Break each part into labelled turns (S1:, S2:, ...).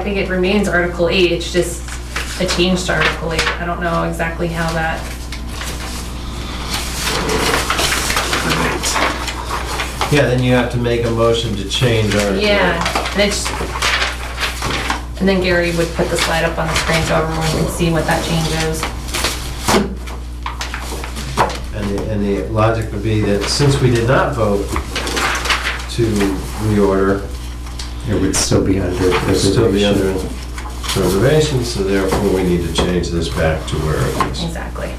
S1: think it remains Article 8, it's just a change to Article 8. I don't know exactly how that,
S2: Yeah, then you have to make a motion to change Article.
S1: yeah, and it's, and then Gary would put the slide up on the screen so everyone can see what that change is.
S2: And the, and the logic would be that since we did not vote to reorder,
S3: It would still be under
S2: it'd still be under
S3: preservation.
S2: preservation, so therefore we need to change this back to where it is.
S1: Exactly.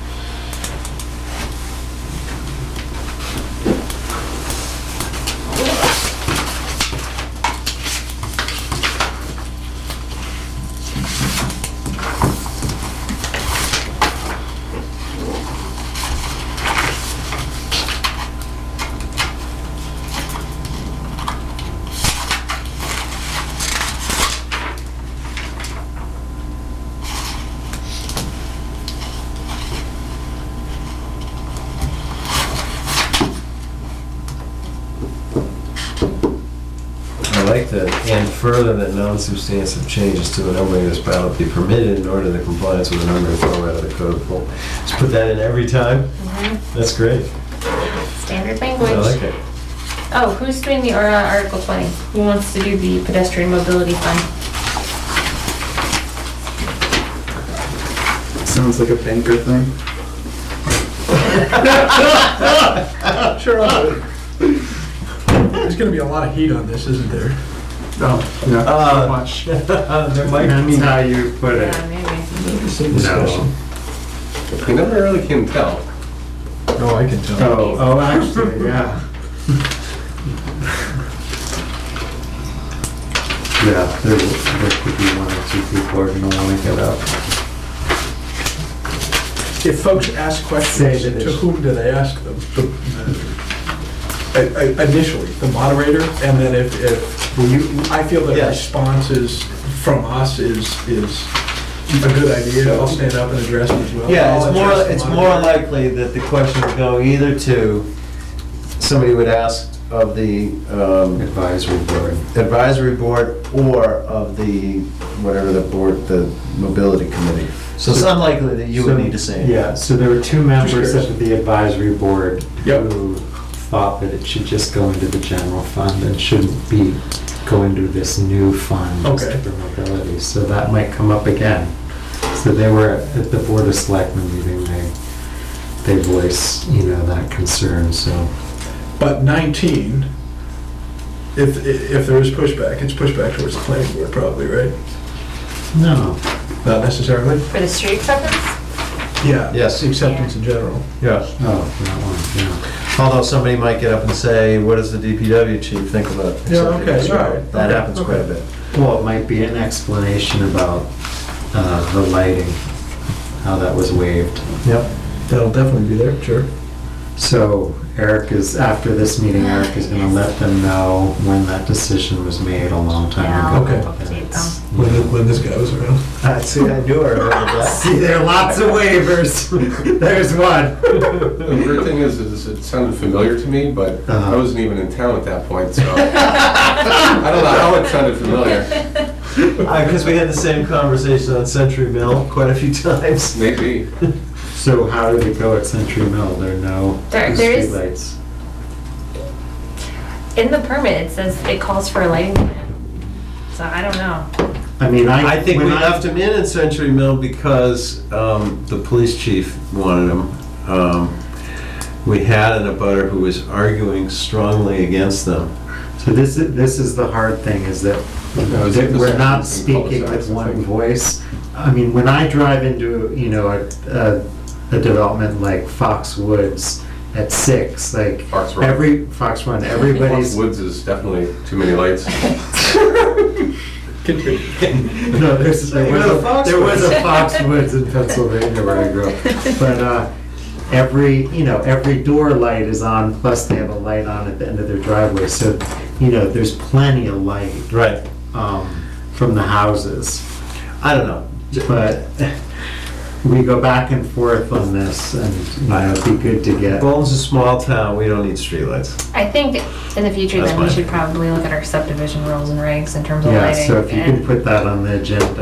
S2: I like that, and further that non-substantive changes to an omnibus ballot be permitted in order to compliance with the number and format of the code. Well, Just put that in every time, that's great,
S1: Standard
S2: I like
S1: language.
S2: it.
S1: Oh, who's doing the uh, Article 20? Who wants to do the pedestrian mobility fund?
S4: Sounds like a banker thing.
S5: Sure. I'll do it. There's gonna be a lot of heat on this, isn't there?
S4: Oh, yeah.
S2: Uh,
S4: Watch.
S2: There might
S3: Depends
S2: be,
S3: how you put it.
S1: Yeah, maybe.
S3: No.
S6: You never really can tell.
S5: No, I can tell.
S3: Oh, oh, actually, yeah. Yeah, there, there could be one or two people who are gonna wanna get up.
S5: If folks ask
S3: Say
S5: questions,
S3: that
S5: to
S3: it's-
S5: whom do they ask them? The- I- I- Initially, the moderator, and then if, if,
S3: Will you,
S5: I feel that
S2: Yes.
S5: response is, from us is, is a good idea, I'll stand up and address it as well.
S2: yeah,
S5: I'll
S2: it's more,
S5: address the
S2: it's more
S5: moderator.
S2: likely that the question would go either to, somebody would ask of the um,
S3: advisory board,
S2: advisory board or of the, whatever the board, the mobility committee. So it's unlikely that you would
S3: So-
S2: need to say. it.
S3: Yeah, so there were two members
S5: curious.
S3: of the advisory board
S5: Yep.
S3: who thought that it should just go into the general fund and shouldn't be, go into this new fund
S5: Okay.
S3: for mobility, so that might come up again. So they were at the Board of Selectmen meeting, they, they voiced, you know, that concern, so.
S5: But 19, if, i- if there is pushback, it's pushback towards the planning board probably, right?
S3: No.
S5: Not necessarily?
S1: For the street acceptance?
S5: Yeah.
S2: Yes.
S5: Acceptance in general.
S2: Yeah.
S3: Oh, that one, yeah.
S2: Although somebody might get up and say, what does the DPW chief think about? accepting
S5: Yeah, okay,
S2: this?"
S5: all right.
S2: That
S5: Okay,
S2: happens quite a
S5: okay.
S2: bit.
S3: Well, it might be an explanation about uh, the lighting, how that was waived.
S5: Yep. That'll definitely be there, sure.
S3: So Eric is, after this meeting, Eric is gonna let them know when that decision was made a
S1: Yeah,
S3: long
S1: Oh.
S3: time
S1: I'll
S3: ago.
S1: update them.
S5: When, th- when this guy was around.
S2: I see, I knew I remembered that.
S3: See, there are lots of waivers. There's
S6: The
S3: one.
S6: weird thing is, is it sounded familiar to me, but I
S3: Uh-huh.
S6: wasn't even in town at that point, so. I don't know how it sounded familiar.
S2: Because we had the same conversation on Century Mill quite a few times.
S6: Maybe.
S3: So how did it go at Century Mill? There are no
S1: There- there is-
S3: streetlights.
S1: In the permit, it says it calls for a lighting plan. So I don't know.
S3: I mean, I.
S2: I think we
S3: when
S2: left him in at Century Mill because um, the police chief wanted him. Um, We had an abutter who was arguing strongly against them.
S3: So this is, this is the hard thing, is that
S6: No, it's
S3: that we're not
S6: just in
S3: speaking
S6: cul-de-sacs,
S3: with
S6: I
S3: one
S6: think.
S3: voice. I mean, when I drive into, you know, a, a- a development like Foxwoods at six, like,
S6: Fox Run.
S3: every, Fox Run, everybody's,
S6: Woods is definitely too many lights.
S5: Continue.
S3: no, there's, there
S2: You
S3: was
S2: go to
S3: a, there was a
S1: Foxwoods.
S3: Foxwoods in Pennsylvania where I grew up. But, uh, every, you know, every door light is on, plus they have a light on at the end of their driveway, so, you know, there's plenty of light,
S2: Right.
S3: um, from the houses.
S2: I don't know.
S3: But we go back and forth on this, and you know, it'd be good to get.
S2: Bolton's a small town, we don't need streetlights.
S1: I think in the future
S2: That's
S1: then we
S2: fine.
S1: should probably look at our subdivision rules and regs in terms of
S3: Yeah,
S1: lighting.
S3: so if you
S1: and-
S3: can put that on the agenda.